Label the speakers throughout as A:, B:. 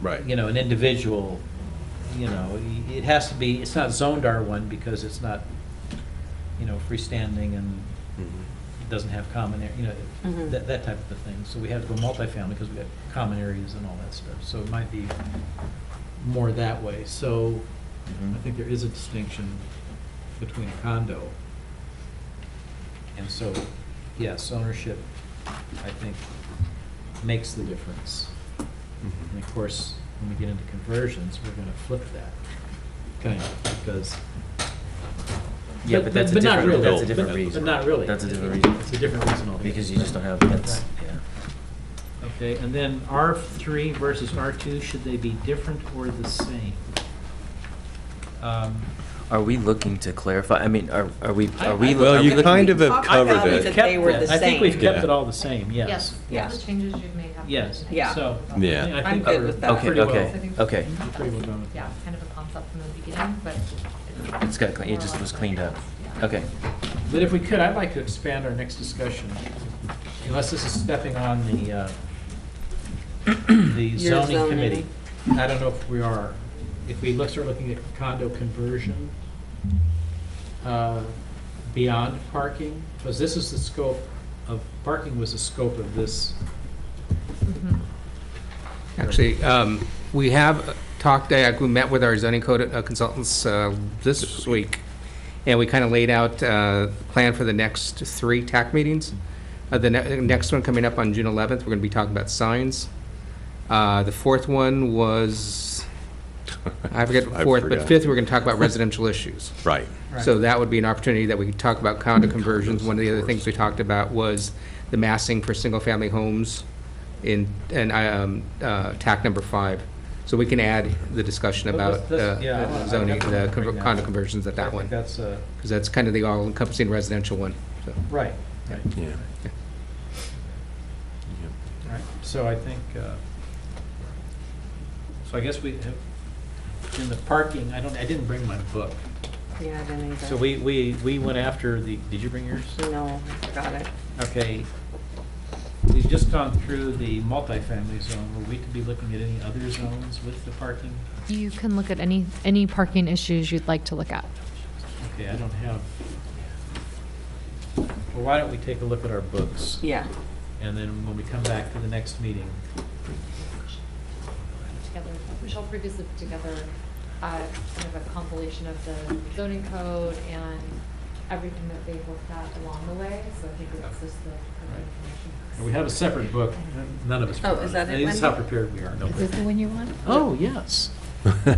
A: Right.
B: you know, an individual, you know, y- it has to be, it's not zoned R1 because it's not, you know, freestanding and
A: Mm-hmm.
B: it doesn't have common, area. you know,
C: Mhm.
B: that, that type of a thing. So we have to go multifamily because we have common areas and all that stuff. So it might be more that way. So Mm-hmm. I think there is a distinction between a condo. And so, yes, ownership, I think, makes the difference.
A: Mm-hmm.
B: And of course, when we get into conversions, we're gonna flip that, kind of, because.
D: Yeah, but that's a
B: not
D: different,
B: really,
D: that's a
B: but-
D: different
B: but-
D: reason.
B: But not really.
D: That's a different reason,
B: It's a different reason altogether.
D: because you just don't have, that's,
B: Right.
D: yeah.
E: Okay, and then R3 versus R2, should they be different or the same? Um,
D: Are we looking to clarify, I mean, are, are we,
B: I-
D: are
B: I-
D: we? are
A: Well,
D: we
A: you
D: looking-
A: kind of uh, have
C: Talked about
A: covered
C: it.
A: it.
C: That they were the
B: I think we've
C: same.
B: kept
A: Yeah.
B: it all the same, yes.
F: Yes, all
C: Yes.
F: the changes you've made have.
B: Yes.
F: been-
C: Yeah.
B: So, I
F: Yeah,
B: think- I
C: I'm
B: think
C: good
B: we're
C: with that.
D: Okay,
B: pretty well-
D: okay, okay.
B: we're Pretty well done with that.
F: kind of a concept from the beginning, but.
D: It's got, clean- it just was cleaned up.
F: Yeah.
D: Okay,
B: But if we could, I'd like to expand our next discussion, unless this is stepping on the, uh, the
C: Your
B: zoning
C: zoning.
B: committee. I don't know if we are. If we look, start looking at condo conversion uh, beyond parking, because this is the scope of, parking was the scope of this.
F: Mhm.
G: Actually, um, we have talked, uh, we met with our zoning code uh, consultants uh, this week, and we kind of laid out uh, the plan for the next three TAC meetings. Uh, The ne- next one coming up on June 11th, we're going to be talking about signs. Uh, The fourth one was, I forget the
A: I
G: fourth, but
A: forgot.
G: fifth, we're going to talk about residential issues.
A: Right.
G: So that would be an opportunity that we could talk about condo conversions. One of the other things we talked about was the massing for single-family homes in, in um, uh, TAC number five. So we can add the discussion
B: But
G: about
B: let's- let's- yeah, I wanna-
G: uh,
B: I definitely
G: zoning, the
B: wanna bring that
G: condo
B: up.
G: conversions at
B: I
G: that
B: think
G: one,
B: That's, uh,
G: because that's kind of the all-encompassing residential one. So
B: right, right.
A: Yeah.
B: Right, so I think, uh, so I guess we, have- in the parking, I don't, I didn't bring my book.
C: Yeah, I didn't either.
B: So we, we, we went after the, did you bring yours?
C: No, I forgot it.
B: Okay. We've just gone through the multifamily zone. Were we to be looking at any other zones with the parking?
F: You can look at any, any parking issues you'd like to look at.
B: Okay, I don't have. Well, why don't we take a look at our books?
C: Yeah.
B: And then when we come back to the next meeting,
F: together, Michelle previously put together uh, kind of a compilation of the zoning code and everything that they've looked at along the way, so I think it's just the. kind of information.
B: we have a separate book. None of us.
C: Oh, is that it,
B: This is how
C: Wendy?
B: prepared we are. No.
F: Is this the one you want?
B: Oh, yes.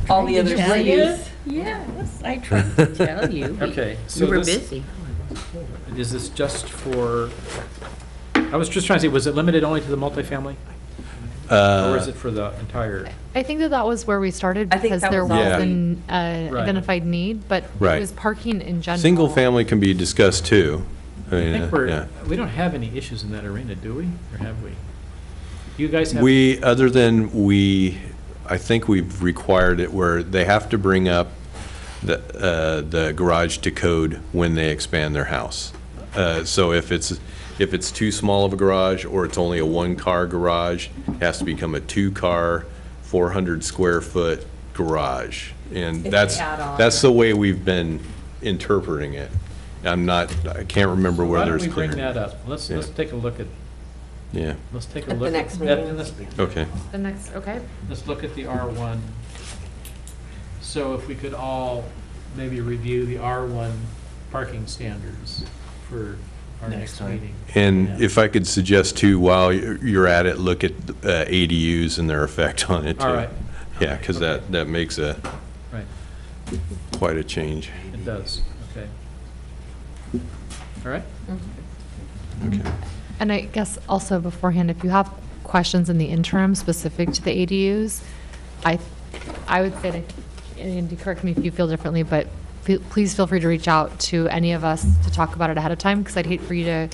C: All the
H: Did
C: other
H: you tell
C: cities.
H: you? Yes, I tried to tell you. We-
B: Okay, so
H: We were
B: this-
H: busy.
B: Is this just for, I was just trying to say, was it limited only to the multifamily? Or is
A: Uh,
B: it for the entire?
F: I think that that was where we started
C: I think
F: because
C: that
F: there
C: was
F: was
A: all we-
F: an uh,
B: Right.
F: identified need, but it
A: Right.
F: was parking in general.
A: Single family can be discussed too. I
B: I
A: mean,
B: think
A: uh,
B: we're,
A: yeah.
B: we don't have any issues in that arena, do we? Or have we? You guys have?
A: We, other than we, I think we've required it where they have to bring up the, uh, the garage to code when they expand their house. Uh, So if it's, if it's too small of a garage or it's only a one-car garage, it has to become a two-car, 400-square-foot garage. And
C: It's
A: that's,
C: an add-on.
A: that's the way we've been interpreting it. I'm not, I can't remember
B: Why
A: whether
B: don't
A: it's
B: we
A: clear.
B: bring that up? Let's, let's
A: Yeah.
B: take a look at,
A: Yeah,
B: let's take a
C: At the
B: look.
C: next
B: at-
C: meeting.
B: let's-
A: okay.
F: The next, okay.
B: Let's look at the R1. So if we could all maybe review the R1 parking standards for our
D: Next
B: next
D: time.
B: meeting.
A: And
B: Yeah.
A: if I could suggest too, while you're you're at it, look at uh, ADUs and their effect on it too.
B: All right.
A: Yeah, because that, that makes a,
B: Right.
A: quite a change.
B: It does, okay. All right?
A: Okay.
F: And I guess also beforehand, if you have questions in the interim specific to the ADUs, I, I would say, to- and Andy, correct me if you feel differently, but fe- please feel free to reach out to any of us to talk about it ahead of time, because I'd hate for you to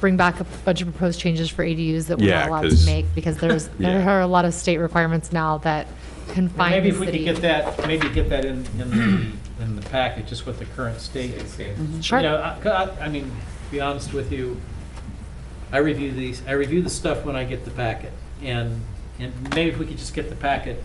F: bring back a bunch of proposed changes for ADUs that we're
A: Yeah,
F: not allowed to
A: 'cause-
F: make, because there's, there
A: Yeah.
F: are a lot of state requirements now that confine the
B: Maybe
F: city.
B: if we could get that, maybe get that in, in the, in the packet, just what the current state is.
F: Sure.
B: You know, I- 'cause I, I mean, to be honest with you, I review these, I review the stuff when I get the packet. And, and maybe if we could just get the packet